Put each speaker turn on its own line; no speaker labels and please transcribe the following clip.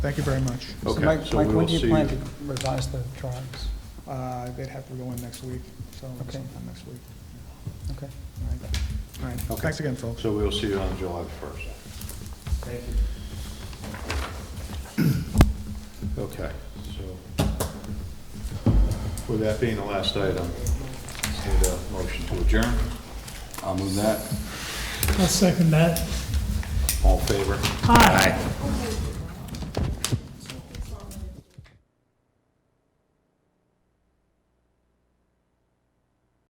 Thank you very much.
So
Okay,
Mike,
so
Mike,
we
when
will
do you
see-
plan to revise the drawings?
Uh, They'd have to go in next week, so
Okay.
sometime next week.
Okay.
All right. All right,
Okay.
thanks again, folks.
So we'll see you on July 1st.
Thank you.
Okay, so with that being the last item, need a motion to adjourn.
I'll move that.
I'll second that.
All in favor?
Aye.